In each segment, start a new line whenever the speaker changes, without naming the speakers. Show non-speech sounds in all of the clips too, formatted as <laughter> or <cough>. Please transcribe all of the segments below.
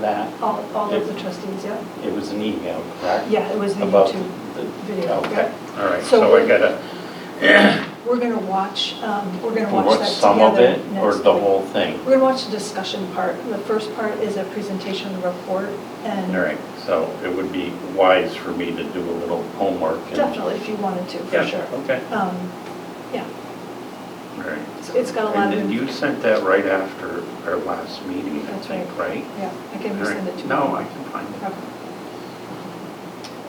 that?
All, all of the trustees, yeah.
It was an email, correct?
Yeah, it was the
About
YouTube
the-
video.
Okay,
yeah.
all right,
So
so I
we-
gotta
We're going to watch, um, we're going to watch
watch
that
some of
together
it or
next
the
week.
whole thing?
We're going to watch the discussion part. The first part is a presentation of the report and.
All right, so it would be wise for me to do a little homework. and-
Definitely, if you wanted to, for
Yeah,
sure.
okay.
Um, Yeah,
All right.
it's- it's got a lot
And
of.
then you sent that right after our last meeting, I
That's
think, right?
Yeah, I can
All right.
resend it to you.
No, I can find it.
Okay.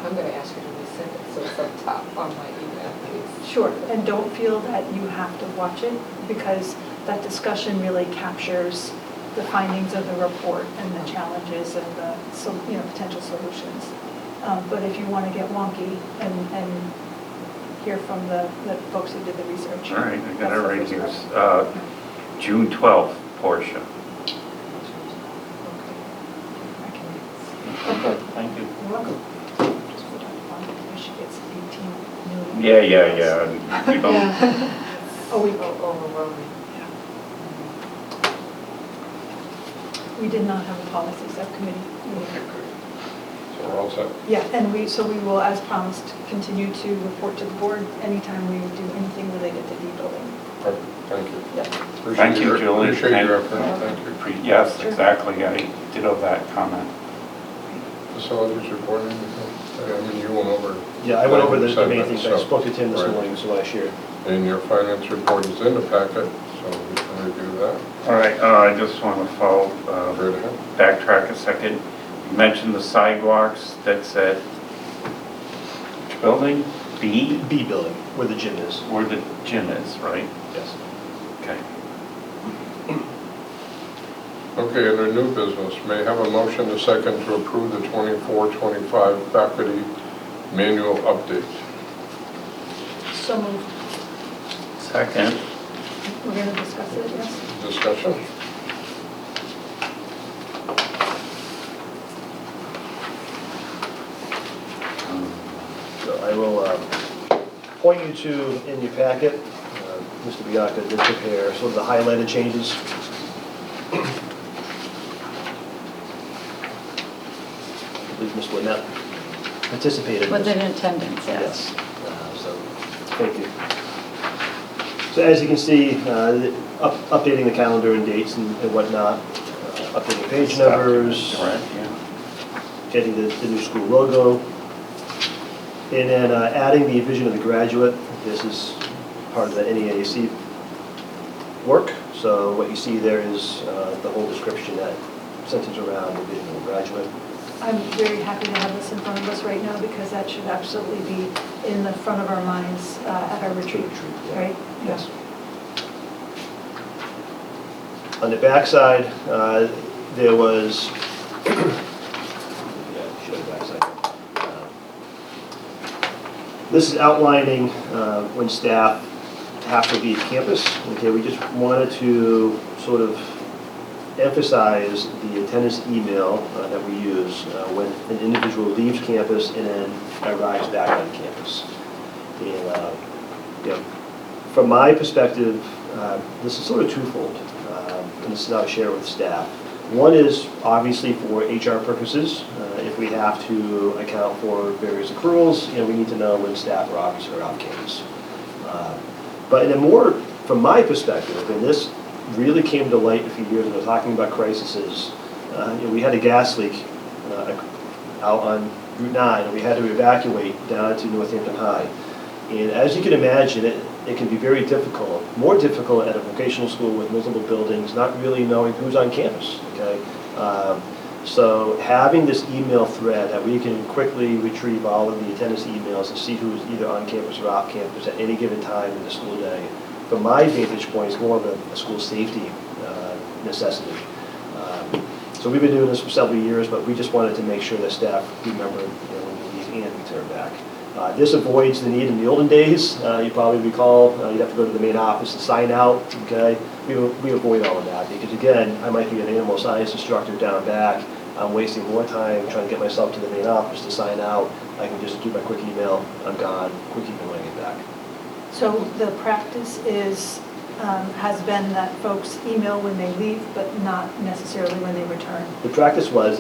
I'm gonna ask you to resend it, so it's up top on my email, please.
Sure, and don't feel that you have to watch it, because that discussion really captures the findings of the report and the challenges and the, so- you know, potential solutions. Um, But if you want to get wonky and, and hear from the, the folks who did the research.
All right, I got it
that's the
right
first
here.
part.
Uh, June 12th, Portia.
I can read
Okay, thank you.
this. You're welcome. Just put on the bottom, I should get some 18 million.
Yeah, yeah, yeah.
<laughs>
We don't-
Oh, we,
Okay. Oh, Overwhelming.
we did not have a policy subcommittee meeting.
So we're all set.
Yeah, and we, so we will, as promised, continue to report to the board anytime we do anything related to e-building.
Perfect. Thank you.
Yeah,
Appreciate
Thank you,
your-
Julie.
Appreciate your
Thank-
effort, thank you.
Pre- Yes,
Sure.
exactly. I ditto that comment.
Facilities report, anything? I mean, you went over.
Yeah, I went over the the main
segments,
things,
so-
I spoke to Tim this
Right.
morning, so I shared.
And your finance report is in the packet, so we can review that.
All right, uh, I just want to follow, uh,
Right ahead.
backtrack a second. You mentioned the sidewalks, that's at which building? B,
B building, where the gym is,
where the gym is, right?
yes.
Okay.
Okay, and our new business, may I have a motion to second to approve the 24-25 faculty manual update.
so moved.
Second.
We're going to discuss it, yes?
Discussion?
um,
So I will uh, point you to, in your packet, uh, Mr. Bianca did prepare sort of the highlighted changes. I believe Ms. Lynette participated. in
Was
this.
it in attendance, yes?
Uh, So, thank you. So as you can see, uh, the- up- updating the calendar and dates and and whatnot, uh, updating page numbers,
Right, yeah.
getting the, the new school logo, and then uh, adding the vision of the graduate. This is part of the NEAC work, so what you see there is uh, the whole description that centers around the vision of the graduate.
I'm very happy to have this in front of us right now because that should absolutely be in the front of our minds uh, at our retreat,
Retreat, yeah.
right?
Yes. On the backside, uh, there was, <coughs> yeah, show the backside. Uh, This is outlining uh, when staff have to leave campus. Okay, we just wanted to sort of emphasize the attendance email uh, that we use uh, when an individual leaves campus and then arrives back on campus. And, uh, you know, from my perspective, uh, this is sort of twofold, um, and this is how I share with staff. One is obviously for HR purposes, uh, if we have to account for various accruals, you know, we need to know when staff are obviously are off campus. Uh, But in a more, from my perspective, and this really came to light a few years ago, talking about crises, uh, you know, we had a gas leak uh, out on Route 9, and we had to evacuate down to Northampton High. And as you can imagine, it, it can be very difficult, more difficult at a vocational school with multiple buildings, not really knowing who's on campus, okay? Um, So having this email thread that we can quickly retrieve all of the attendance emails and see who's either on campus or off campus at any given time in the school day, from my vantage point, is more of a, a school safety uh, necessity. Um, So we've been doing this for several years, but we just wanted to make sure that staff remember you know, when we leave and we turn back. Uh, This avoids the need in the olden days, Uh, you probably recall, uh, you'd have to go to the main office and sign out, okay? We we avoid all of that, because again, I might be an animal science instructor down back, I'm wasting more time trying to get myself to the main office to sign out, I can just do my quick email, I'm gone, quick email when I get back.
So the practice is, um, has been that folks email when they leave, but not necessarily when they return.
The practice was,